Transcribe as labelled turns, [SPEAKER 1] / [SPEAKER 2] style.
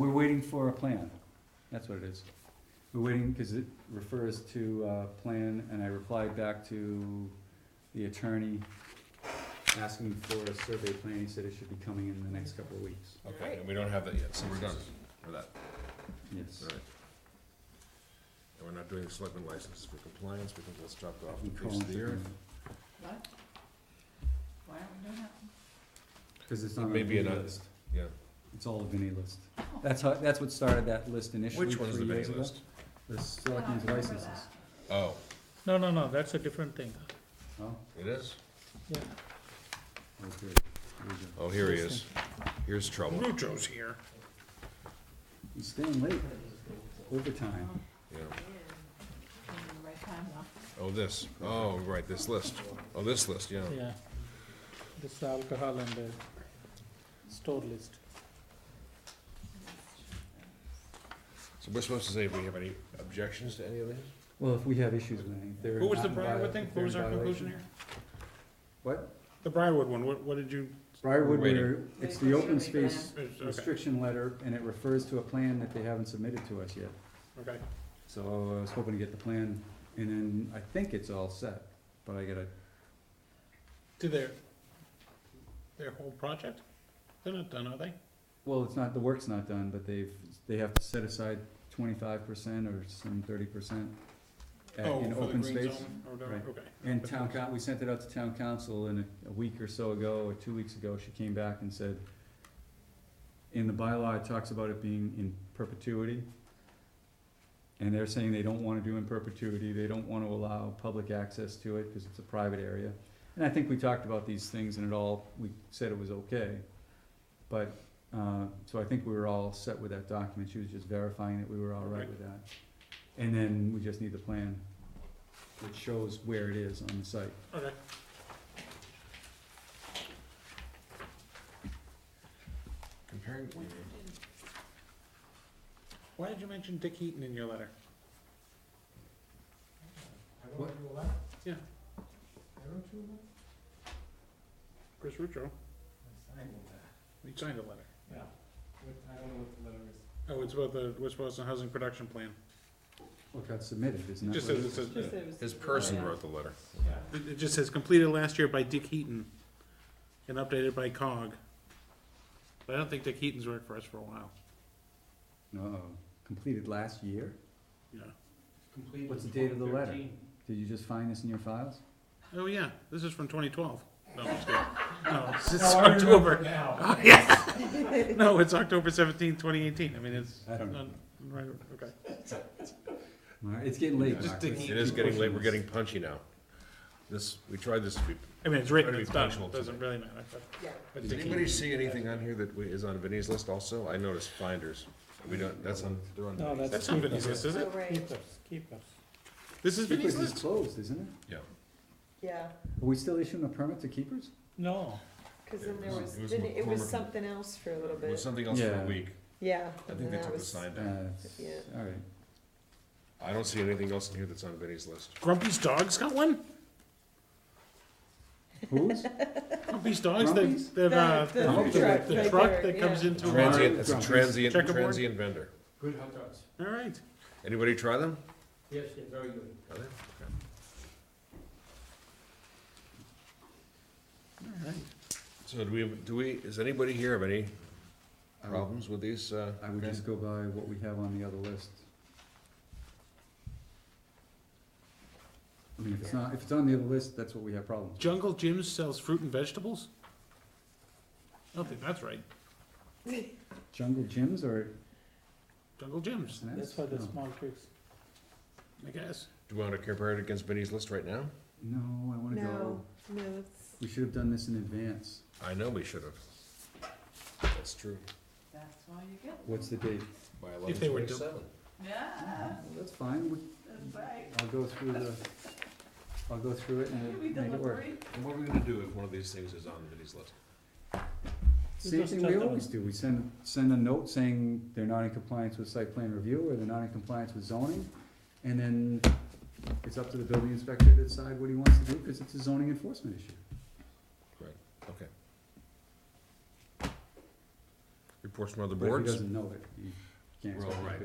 [SPEAKER 1] waiting for a plan. That's what it is. We're waiting, cause it refers to, uh, plan, and I replied back to the attorney asking for a survey plan. He said it should be coming in the next couple of weeks.
[SPEAKER 2] Okay, and we don't have that yet, so we're done for that,
[SPEAKER 1] Yes.
[SPEAKER 2] alright. And we're not doing selectmen licenses for compliance, because that's dropped off
[SPEAKER 1] We
[SPEAKER 2] the
[SPEAKER 1] call
[SPEAKER 2] face of
[SPEAKER 1] it-
[SPEAKER 2] the earth.
[SPEAKER 3] What? Why aren't we doing that?
[SPEAKER 1] Cause it's not on the
[SPEAKER 2] Maybe
[SPEAKER 1] Vinnie
[SPEAKER 2] another-
[SPEAKER 1] list.
[SPEAKER 2] Yeah,
[SPEAKER 1] It's all the Vinnie list.
[SPEAKER 3] Oh.
[SPEAKER 1] That's how, that's what started that list initially
[SPEAKER 2] which one is the
[SPEAKER 1] three
[SPEAKER 2] mini
[SPEAKER 1] years ago.
[SPEAKER 2] list?
[SPEAKER 1] The
[SPEAKER 3] Yeah, I
[SPEAKER 1] selectmen's
[SPEAKER 3] remember
[SPEAKER 1] licenses.
[SPEAKER 3] that.
[SPEAKER 2] Oh,
[SPEAKER 4] No, no, no, that's a different thing,
[SPEAKER 1] Oh,
[SPEAKER 2] it is?
[SPEAKER 4] yeah.
[SPEAKER 1] okay. Here we go.
[SPEAKER 2] Oh, here he is, here's trouble.
[SPEAKER 4] Lucho's here.
[SPEAKER 1] He's staying late, overtime.
[SPEAKER 2] Yeah,
[SPEAKER 3] In the right time, though.
[SPEAKER 2] oh, this, oh, right, this list, oh, this list, yeah.
[SPEAKER 4] Yeah. This is alcohol and the store list.
[SPEAKER 2] So we're supposed to say if we have any objections to any of these?
[SPEAKER 1] Well, if we have issues with anything, they're.
[SPEAKER 5] Who was
[SPEAKER 1] not
[SPEAKER 5] the
[SPEAKER 1] in
[SPEAKER 5] Briarwood
[SPEAKER 1] viola-
[SPEAKER 5] thing?
[SPEAKER 1] if
[SPEAKER 5] What
[SPEAKER 1] they're
[SPEAKER 5] was
[SPEAKER 1] in
[SPEAKER 5] our
[SPEAKER 1] violation-
[SPEAKER 5] conclusion here?
[SPEAKER 1] What?
[SPEAKER 5] The Briarwood one, what, what did you,
[SPEAKER 1] Briarwood,
[SPEAKER 2] Waiting.
[SPEAKER 1] where it's the open space
[SPEAKER 5] okay,
[SPEAKER 1] restriction letter, and it refers to a plan that they haven't submitted to us yet.
[SPEAKER 5] okay.
[SPEAKER 1] So uh, I was hoping to get the plan, and then I think it's all set, but I gotta,
[SPEAKER 4] To their, their whole project? They're not done, are they?
[SPEAKER 1] well, it's not, the work's not done, but they've, they have to set aside twenty-five percent or some thirty percent Uh,
[SPEAKER 4] Oh,
[SPEAKER 1] in open space. Right.
[SPEAKER 5] Okay.
[SPEAKER 1] And town coun, we sent it out to town council and a- a week or so ago, or two weeks ago, she came back and said, in the bylaw, it talks about it being in perpetuity. And they're saying they don't wanna do in perpetuity, they don't wanna allow public access to it, cause it's a private area. And I think we talked about these things and it all, we said it was okay. But, uh, so I think we were all set with that document, she was just verifying that we were all right
[SPEAKER 5] Okay.
[SPEAKER 1] with that. And then we just need the plan that shows where it is on the site.
[SPEAKER 5] Okay.
[SPEAKER 2] Comparing,
[SPEAKER 4] Why did you mention Dick Heaton in your letter?
[SPEAKER 1] What?
[SPEAKER 4] Yeah. Chris Rucho, he signed a letter. Oh, it's about the West Boston Housing Production Plan.
[SPEAKER 1] What got submitted, isn't that
[SPEAKER 4] It just
[SPEAKER 1] what it
[SPEAKER 4] says, it
[SPEAKER 1] is?
[SPEAKER 4] says,
[SPEAKER 3] Just
[SPEAKER 4] it
[SPEAKER 3] there was-
[SPEAKER 2] his person wrote the letter.
[SPEAKER 4] it just says completed last year by Dick Heaton and updated by COG. But I don't think Dick Heaton's worked for us for a while,
[SPEAKER 1] No, uh, completed last year?
[SPEAKER 4] yeah.
[SPEAKER 1] What's the date of the letter? Did you just find this in your files?
[SPEAKER 4] Oh yeah, this is from 2012. No, I'm just kidding. No, it's, it's October. Oh, yeah. no, it's October 17, 2018. I mean, it's
[SPEAKER 1] I don't
[SPEAKER 4] not, right, okay.
[SPEAKER 1] Alright, It's getting late,
[SPEAKER 4] Just
[SPEAKER 1] Mark.
[SPEAKER 4] dig
[SPEAKER 1] Let's
[SPEAKER 2] It is
[SPEAKER 1] keep
[SPEAKER 2] getting
[SPEAKER 1] pushing
[SPEAKER 2] late, we're
[SPEAKER 1] this.
[SPEAKER 2] getting punchy now. This, we tried this to be
[SPEAKER 4] I mean, it's written,
[SPEAKER 2] Better be
[SPEAKER 4] it's done.
[SPEAKER 2] punctual
[SPEAKER 4] It doesn't really matter. But,
[SPEAKER 3] Yeah.
[SPEAKER 4] but
[SPEAKER 2] Does
[SPEAKER 4] Dick
[SPEAKER 2] anybody
[SPEAKER 4] Heaton-
[SPEAKER 2] see anything on here that we- is on Vinnie's list also? I noticed finders. We don't, that's on, they're on Vinnie's.
[SPEAKER 4] that's not Vinny's list, is it?
[SPEAKER 3] Oh, right.
[SPEAKER 4] This is Vinny's
[SPEAKER 1] Keepers is
[SPEAKER 4] list.
[SPEAKER 1] closed, isn't it?
[SPEAKER 2] Yeah.
[SPEAKER 3] Yeah,
[SPEAKER 1] Are we still issuing a permit to keepers?
[SPEAKER 4] No.
[SPEAKER 3] cause then
[SPEAKER 2] It
[SPEAKER 3] there
[SPEAKER 2] was-
[SPEAKER 3] was,
[SPEAKER 2] it was
[SPEAKER 3] didn't- it was
[SPEAKER 2] McCormick.
[SPEAKER 3] something else for a little
[SPEAKER 2] It was
[SPEAKER 3] bit,
[SPEAKER 2] something else for a
[SPEAKER 1] Yeah.
[SPEAKER 2] week.
[SPEAKER 3] yeah.
[SPEAKER 2] I
[SPEAKER 3] and
[SPEAKER 2] think they
[SPEAKER 3] that
[SPEAKER 2] took the
[SPEAKER 3] was-
[SPEAKER 2] sign down.
[SPEAKER 1] Uh,
[SPEAKER 3] Yeah.
[SPEAKER 1] alright.
[SPEAKER 2] I don't see anything else in here that's on Vinnie's list.
[SPEAKER 4] Grumpy's dog's got one.
[SPEAKER 1] Who's?
[SPEAKER 4] Grumpy's dogs. They,
[SPEAKER 1] Grumpy's?
[SPEAKER 4] they've, uh,
[SPEAKER 3] The-
[SPEAKER 4] the,
[SPEAKER 1] the
[SPEAKER 4] the
[SPEAKER 1] truck
[SPEAKER 3] right
[SPEAKER 4] truck,
[SPEAKER 3] there,
[SPEAKER 4] that comes
[SPEAKER 3] yeah.
[SPEAKER 4] into uh, our.
[SPEAKER 2] Transient, that's a
[SPEAKER 1] Grumpy's.
[SPEAKER 2] transient,
[SPEAKER 4] Checkerboard?
[SPEAKER 2] transient vendor.
[SPEAKER 5] Good hot dogs.
[SPEAKER 4] All right.
[SPEAKER 2] Anybody try them?
[SPEAKER 5] Yes, they're very good.
[SPEAKER 2] Are they?
[SPEAKER 4] All right.
[SPEAKER 2] So do we, do we, is anybody here have any
[SPEAKER 1] I
[SPEAKER 4] Um,
[SPEAKER 1] would-
[SPEAKER 2] problems with these? uh,
[SPEAKER 1] I would just go by what we have on the other list. I mean, if it's not, if it's on the other list, that's what we have problems. with.
[SPEAKER 4] Jungle Jim sells fruit and vegetables. I don't think that's right.
[SPEAKER 1] Jungle gyms or?
[SPEAKER 4] Jungle Jim's,
[SPEAKER 1] That's No.
[SPEAKER 4] kids. I guess.
[SPEAKER 2] Do you want to compare it against Vinnie's list right now?
[SPEAKER 1] No, I wanna go,
[SPEAKER 3] No, no, it's,
[SPEAKER 1] we should have done this in advance.
[SPEAKER 2] I know we should have. That's true.
[SPEAKER 3] that's why you get.
[SPEAKER 1] What's the date?
[SPEAKER 2] By
[SPEAKER 4] If they were to-
[SPEAKER 2] 11:27.
[SPEAKER 3] Yeah,
[SPEAKER 1] Well, That's fine, we,
[SPEAKER 3] that's right.
[SPEAKER 1] I'll go through the, I'll go through it
[SPEAKER 3] We
[SPEAKER 1] and make it work.
[SPEAKER 3] deliberate.
[SPEAKER 2] And what are we gonna do if one of these things is on Vinnie's list?
[SPEAKER 1] Same
[SPEAKER 4] just
[SPEAKER 1] thing
[SPEAKER 4] tell
[SPEAKER 1] we
[SPEAKER 4] them.
[SPEAKER 1] always do, we send, send a note saying they're not in compliance with site plan review, or they're not in compliance with zoning, and then it's up to the building inspector to decide what he wants to do, cause it's a zoning enforcement issue.
[SPEAKER 2] Okay. Reports from other
[SPEAKER 1] But if he
[SPEAKER 2] boards?
[SPEAKER 1] doesn't know it, he- can't
[SPEAKER 2] Well,
[SPEAKER 1] expect it
[SPEAKER 2] right.